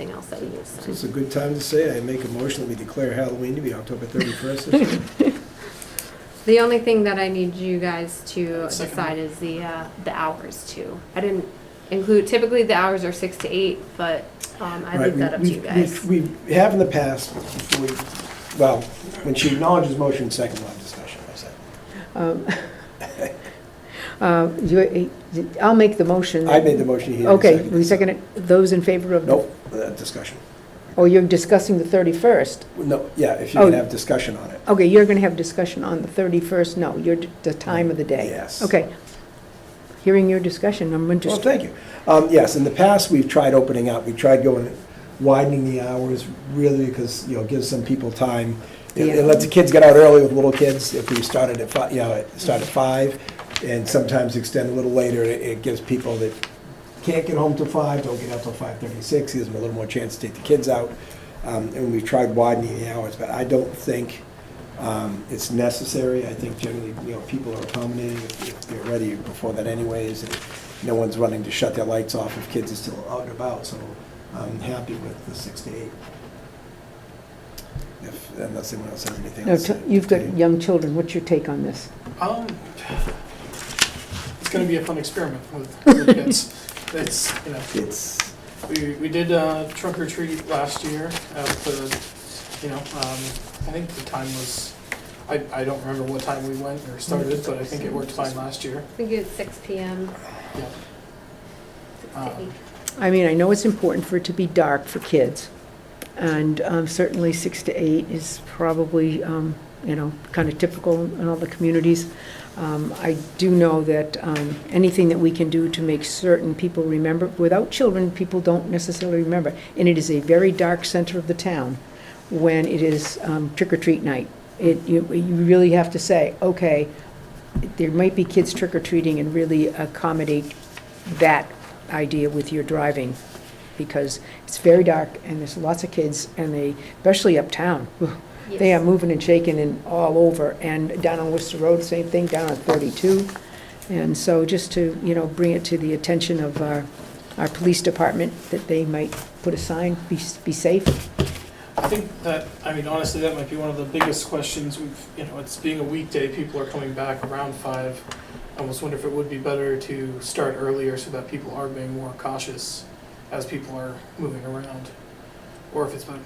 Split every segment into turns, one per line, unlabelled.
Anything else that we use.
So it's a good time to say, I make a motion that we declare Halloween to be October 31st.
The only thing that I need you guys to
Second.
decide is the, uh, the hours too. I didn't include, typically the hours are six to eight, but, um, I
Right,
leave
we-
that up to you
we-
guys.
We we have in the past, before we- well, when she acknowledges motion, second line discussion, I said.
Um, uh, you- I'll make the motion.
I made the motion, he didn't
Okay,
second.
we second it. Those in favor of?
Nope, uh, discussion.
Oh, you're discussing the 31st.
No, yeah, if you can
Oh.
have discussion on it.
Okay, you're going to have discussion on the 31st. No, you're d- the time of the day.
Yes.
Okay. Hearing your discussion, I'm
Well,
interested.
thank you. Um, Yes, in the past, we've tried opening up, we tried going, widening the hours really because, you know, gives some people time. It
Yeah.
it lets the kids get out early with little kids. If we started at five, you know, start at five and sometimes extend a little later, it it gives people that can't get home till five, don't get out till five thirty-six, gives them a little more chance to take the kids out. Um, And we've tried widening the hours, but I don't think um, it's necessary. I think generally, you know, people are accommodating if if they're ready before that anyways. and No one's running to shut their lights off if kids are still out and about, so I'm happy with the six to eight. If, unless anyone else has anything
Now,
else.
t-
to-
You've
to-
got young children. What's your take on this?
Um, it's gonna be a fun experiment with the kids. It's, you know,
It's,
we, we did uh, trunk or treat last year at the, you know, um, I think the time was, I, I don't remember what time we went or started, but I think it worked fine last year.
We do it six P M.
Yeah.
Six
Um,
to eight.
I mean, I know it's important for it to be dark for kids, and um, certainly six to eight is probably, um, you know, kind of typical in all the communities. Um, I do know that um, anything that we can do to make certain people remember, without children, people don't necessarily remember, and it is a very dark center of the town when it is um, trick or treat night. It, you you really have to say, okay, there might be kids trick or treating and really accommodate that idea with your driving, because it's very dark and there's lots of kids, and they, especially uptown, they are
Yes.
moving and shaking and all over, and down on Worcester Road, same thing, down on 32. And so just to, you know, bring it to the attention of our, our police department, that they might put a sign, be, be safe.
I think that, I mean, honestly, that might be one of the biggest questions we've, you know, it's being a weekday, people are coming back around five. I almost wonder if it would be better to start earlier so that people are being more cautious as people are moving around. Or if it's been.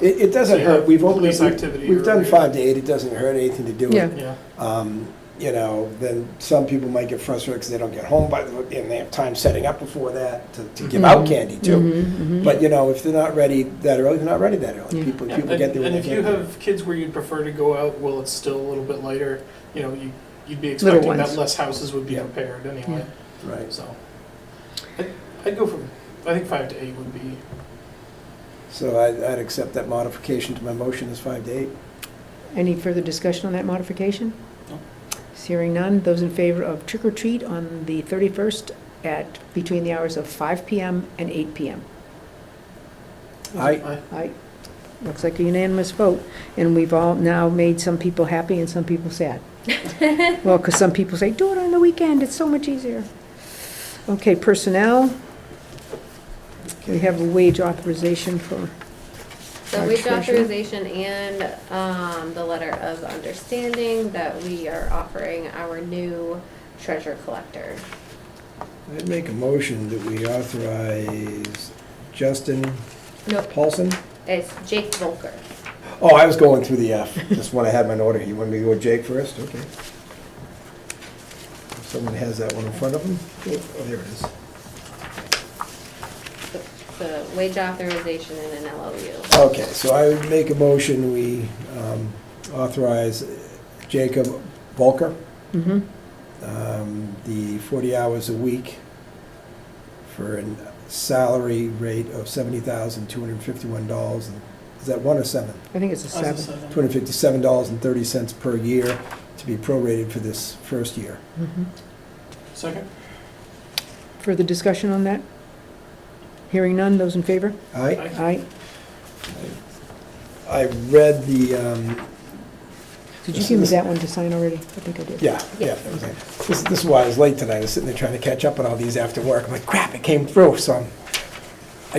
it, it doesn't
Yeah,
hurt. We've opened,
police
we-
activity
we've done
earlier.
five to eight, it doesn't hurt anything to do it.
Yeah.
Yeah,
um, you know, then some people might get frustrated because they don't get home by, the and they have time setting up before that to, to give out
Mhm.
candy too.
Mhm, mhm.
But, you know, if they're not ready that early, they're not ready that early.
Yeah.
People,
Yeah,
people
and
get there when
and
they
if you
can.
have kids where you'd prefer to go out while it's still a little bit later, you know, you, you'd be
Little
expecting that
ones.
less houses would be
Yeah.
repaired anyway,
Right,
so. I'd, I'd go from, I think five to eight would be,
so I'd, I'd accept that modification to my motion is five to eight.
Any further discussion on that modification?
No.
Hearing none, those in favor of trick or treat on the 31st at, between the hours of 5 PM and 8 PM.
I,
I,
Aye. Looks like a unanimous vote, and we've all now made some people happy and some people sad. Well, because some people say, do it on the weekend, it's so much easier. Okay, personnel. We have a wage authorization for,
So
Our
wage
treasurer.
authorization and, um, the letter of understanding that we are offering our new treasure collector.
I'd make a motion that we authorize Justin
Nope,
Paulson.
it's Jake Volker.
Oh, I was going through the F, just when I had my order. You want me to go with Jake first? Okay. If Someone has that one in front of them. Oh, there it is.
The- The wage authorization and an LOU.
Okay, so I would make a motion, we um, authorize Jacob Volker,
Mhm.
um, the 40 hours a week for a salary rate of $70,251. and- Is that one or seven?
I think it's a
I was a
seven.
seven.
$257.30 per year to be prorated for this first year.
Mhm.
Second?
Further discussion on that? Hearing none, those in favor?
Aye?
Aye.
Aye.
I read the, um,
Did you give me that one to sign already? I think I did.
yeah, yeah, that was it. This this is why I was late tonight, I was sitting there trying to catch up on all these after work. I'm like, crap, it came through, so I'm